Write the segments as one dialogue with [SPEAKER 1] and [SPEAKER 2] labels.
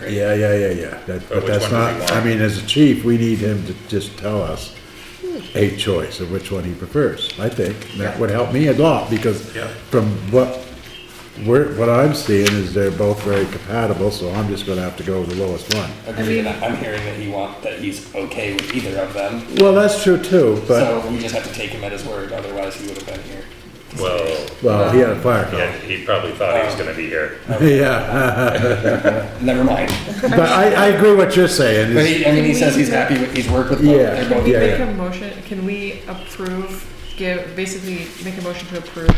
[SPEAKER 1] right?
[SPEAKER 2] Yeah, yeah, yeah, yeah. That,
[SPEAKER 1] But
[SPEAKER 2] but
[SPEAKER 1] which
[SPEAKER 2] that's
[SPEAKER 1] one do we
[SPEAKER 2] not,
[SPEAKER 1] want?
[SPEAKER 2] I mean, as a chief, we need him to just tell us a choice of which one he prefers, I think. That would help me a lot, because
[SPEAKER 1] Yeah.
[SPEAKER 2] from what, we're what I'm seeing is they're both very compatible, so I'm just gonna have to go with the lowest one.
[SPEAKER 3] Agree, and I'm hearing that he want, that he's okay with either of them,
[SPEAKER 2] Well, that's true too, but,
[SPEAKER 3] so we just have to take him at his word, otherwise he would have been here.
[SPEAKER 1] Well,
[SPEAKER 2] well, he had a fire
[SPEAKER 1] yeah,
[SPEAKER 2] call.
[SPEAKER 1] he probably thought he was gonna be here.
[SPEAKER 2] Yeah,
[SPEAKER 3] Never mind.
[SPEAKER 2] but I, I agree what you're saying.
[SPEAKER 3] But
[SPEAKER 2] is-
[SPEAKER 3] he, I mean, he says he's happy with, he's worked with both,
[SPEAKER 2] Yeah,
[SPEAKER 3] they're both.
[SPEAKER 2] yeah,
[SPEAKER 4] Make
[SPEAKER 2] yeah.
[SPEAKER 4] a motion, can we approve, give, basically make a motion to approve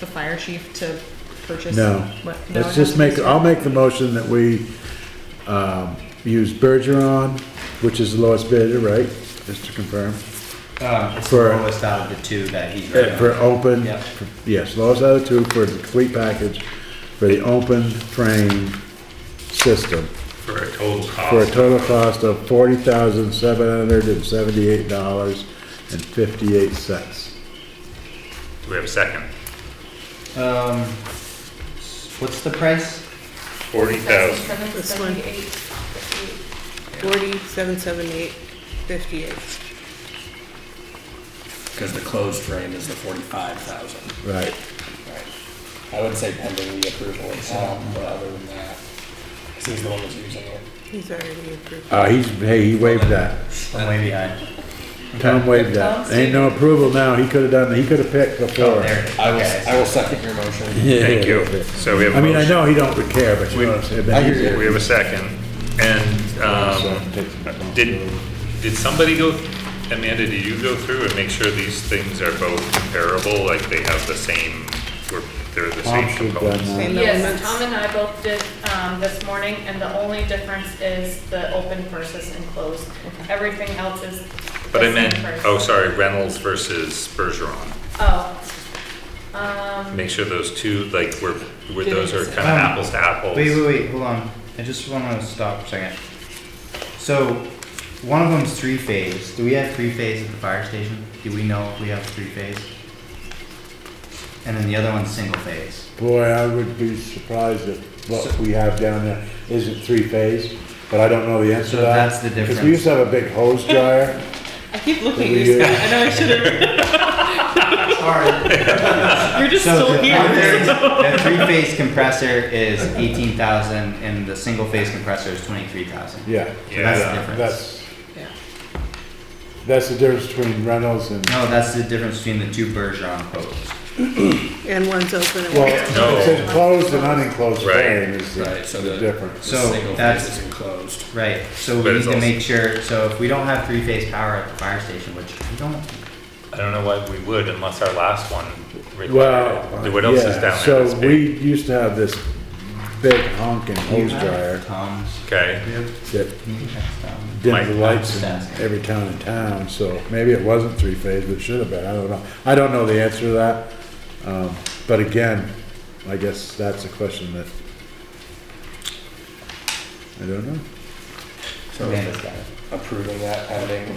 [SPEAKER 4] the fire chief to purchase?
[SPEAKER 2] No,
[SPEAKER 4] what- no, it
[SPEAKER 2] let's
[SPEAKER 4] has
[SPEAKER 2] just
[SPEAKER 4] to be
[SPEAKER 2] make,
[SPEAKER 4] separate.
[SPEAKER 2] I'll make the motion that we, um, use Bergeron, which is the lowest bidder, right? Just to confirm.
[SPEAKER 5] Um, it's the
[SPEAKER 2] For-
[SPEAKER 5] lowest out of the two that he's.
[SPEAKER 2] Uh, For open,
[SPEAKER 5] Yep.
[SPEAKER 2] yes, lowest out of two for the complete package, for the open frame system,
[SPEAKER 1] For a total
[SPEAKER 2] for a
[SPEAKER 1] cost,
[SPEAKER 2] total cost of forty thousand, seven hundred and seventy-eight dollars and fifty-eight cents.
[SPEAKER 1] do we have a second?
[SPEAKER 5] Um, what's the price?
[SPEAKER 1] Forty thousand,
[SPEAKER 6] This one. Forty, seven, seven, eight, fifty-eight.
[SPEAKER 3] Cause the closed frame is the forty-five thousand.
[SPEAKER 2] Right,
[SPEAKER 3] I would say pending the approval of Tom, but other than that, cause he's the one that's using it.
[SPEAKER 6] He's already approved.
[SPEAKER 2] uh, he's, hey, he waived that.
[SPEAKER 5] I'm way behind.
[SPEAKER 2] Tom waived that. Ain't no approval now. He could've done, he could've picked
[SPEAKER 5] Oh,
[SPEAKER 2] before.
[SPEAKER 5] there it is.
[SPEAKER 3] I will,
[SPEAKER 5] Okay.
[SPEAKER 3] I will second your motion.
[SPEAKER 1] thank you. So we have
[SPEAKER 2] I
[SPEAKER 1] a
[SPEAKER 2] mean, I
[SPEAKER 1] motion,
[SPEAKER 2] know he don't care, but you know what I'm saying? but he's-
[SPEAKER 1] we have a second, and,
[SPEAKER 2] So,
[SPEAKER 1] um,
[SPEAKER 2] take the
[SPEAKER 1] did, did somebody go, Amanda, did you go through and make sure these things are both comparable, like they have the same, or they're the
[SPEAKER 2] Tom
[SPEAKER 1] same
[SPEAKER 2] should've done
[SPEAKER 1] components?
[SPEAKER 2] that.
[SPEAKER 6] Same
[SPEAKER 7] Yes,
[SPEAKER 6] elements.
[SPEAKER 7] Tom and I both did, um, this morning, and the only difference is the open versus enclosed. Everything else is the
[SPEAKER 1] But I
[SPEAKER 7] same
[SPEAKER 1] meant,
[SPEAKER 7] price.
[SPEAKER 1] oh, sorry, Reynolds versus Bergeron.
[SPEAKER 7] Oh, um,
[SPEAKER 1] Make sure those two, like, were, were, those are kind of
[SPEAKER 5] Um,
[SPEAKER 1] apples to apples.
[SPEAKER 5] Wait, wait, wait, hold on. I just wanna stop for a second. So, one of them's three phase. Do we have three phase at the fire station? Do we know if we have three phase? And then the other one's single phase.
[SPEAKER 2] Boy, I would be surprised if what we have down there isn't three-phase, but I don't know the answer to
[SPEAKER 5] So
[SPEAKER 2] that.
[SPEAKER 5] that's the
[SPEAKER 2] Because we used to have a big hose dryer.
[SPEAKER 4] I keep
[SPEAKER 2] that
[SPEAKER 4] looking at
[SPEAKER 2] we uh,
[SPEAKER 4] you,
[SPEAKER 2] used-
[SPEAKER 4] Scott, I know I should've,
[SPEAKER 5] Alright.
[SPEAKER 4] you're just
[SPEAKER 5] So
[SPEAKER 4] still
[SPEAKER 5] the
[SPEAKER 4] here.
[SPEAKER 5] other, the three phase compressor is eighteen thousand and the single phase compressor is twenty-three thousand.
[SPEAKER 2] Yeah.
[SPEAKER 1] Yeah,
[SPEAKER 5] That's the
[SPEAKER 1] yeah,
[SPEAKER 5] difference.
[SPEAKER 2] That's,
[SPEAKER 4] Yeah.
[SPEAKER 2] that's the difference between Reynolds and,
[SPEAKER 5] No, that's the difference between the two Bergeron quotes.
[SPEAKER 6] And one's open and
[SPEAKER 2] well,
[SPEAKER 6] one's.
[SPEAKER 1] No.
[SPEAKER 2] it's enclosed and unenclosed
[SPEAKER 1] Right.
[SPEAKER 2] frame is
[SPEAKER 3] Right, so
[SPEAKER 2] the- the
[SPEAKER 3] the-
[SPEAKER 2] difference.
[SPEAKER 5] So,
[SPEAKER 3] The single
[SPEAKER 5] that's-
[SPEAKER 3] phase is enclosed.
[SPEAKER 5] Right, so
[SPEAKER 1] But
[SPEAKER 5] we need
[SPEAKER 1] it's
[SPEAKER 5] to
[SPEAKER 1] also-
[SPEAKER 5] make sure, so if we don't have three-phase power at the fire station, which we don't,
[SPEAKER 1] I don't know why we would unless our last one required
[SPEAKER 2] Well,
[SPEAKER 1] it. What else is
[SPEAKER 2] yeah,
[SPEAKER 1] down there that's
[SPEAKER 2] so
[SPEAKER 1] big?
[SPEAKER 2] we used to have this big honking hose dryer
[SPEAKER 5] Tom's.
[SPEAKER 1] Okay,
[SPEAKER 2] that
[SPEAKER 5] Maybe that's Tom.
[SPEAKER 2] dimmed the
[SPEAKER 1] Mike,
[SPEAKER 2] lights
[SPEAKER 5] just
[SPEAKER 2] in
[SPEAKER 5] asking.
[SPEAKER 2] every town in town, so maybe it wasn't three-phase, but it should have been, I don't know. I don't know the answer to that. Um, But again, I guess that's a question that I don't know.
[SPEAKER 3] So
[SPEAKER 5] Amanda's got it.
[SPEAKER 3] approving that pending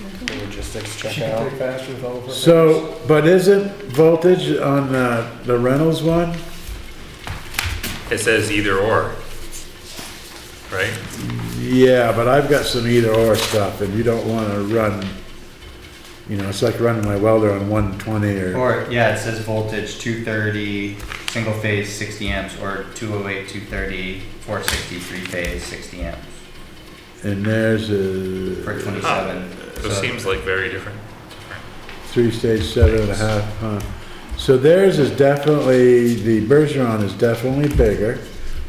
[SPEAKER 5] Mm-hmm.
[SPEAKER 3] the logistics checkout.
[SPEAKER 2] So, but isn't voltage on uh, the Reynolds one?
[SPEAKER 1] it says either or. Right?
[SPEAKER 2] Yeah, but I've got some either or stuff and you don't wanna run, you know, it's like running my welder on one twenty or,
[SPEAKER 5] Or, yeah, it says voltage two thirty, single phase sixty amps, or two oh eight, two thirty, four sixty, three phase sixty amps
[SPEAKER 2] and there's
[SPEAKER 5] for
[SPEAKER 2] a
[SPEAKER 5] twenty-seven.
[SPEAKER 1] Those
[SPEAKER 5] So-
[SPEAKER 1] seems like very different.
[SPEAKER 2] three-stage seven and a half, huh? So theirs is definitely, the Bergeron is definitely bigger.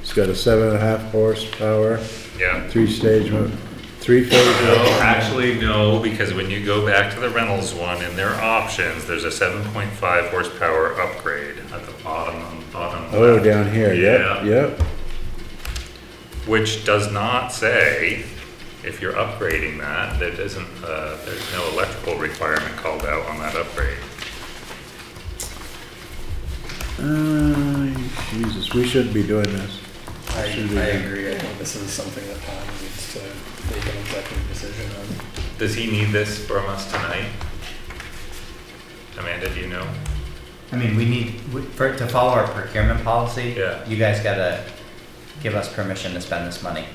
[SPEAKER 2] It's got a seven and a half horsepower,
[SPEAKER 1] Yeah.
[SPEAKER 2] three-stage, mo- three-phase.
[SPEAKER 1] No, actually, no, because when you go back to the Reynolds one and their options, there's a seven point five horsepower upgrade at the bottom, bottom
[SPEAKER 2] Oh,
[SPEAKER 1] left.
[SPEAKER 2] down here, yep,
[SPEAKER 1] Yeah.
[SPEAKER 2] yep.
[SPEAKER 1] Which does not say, if you're upgrading that, there isn't, uh, there's no electrical requirement called out on that upgrade.
[SPEAKER 2] Uh, Jesus, we shouldn't be doing this.
[SPEAKER 3] I, I
[SPEAKER 2] Should we-
[SPEAKER 3] agree, I think this is something that Tom needs to make an executive decision on.
[SPEAKER 1] Does he need this from us tonight? Amanda, do you know?
[SPEAKER 5] I mean, we need, we- for, to follow our procurement policy.
[SPEAKER 1] Yeah.
[SPEAKER 5] You guys gotta give us permission to spend this money.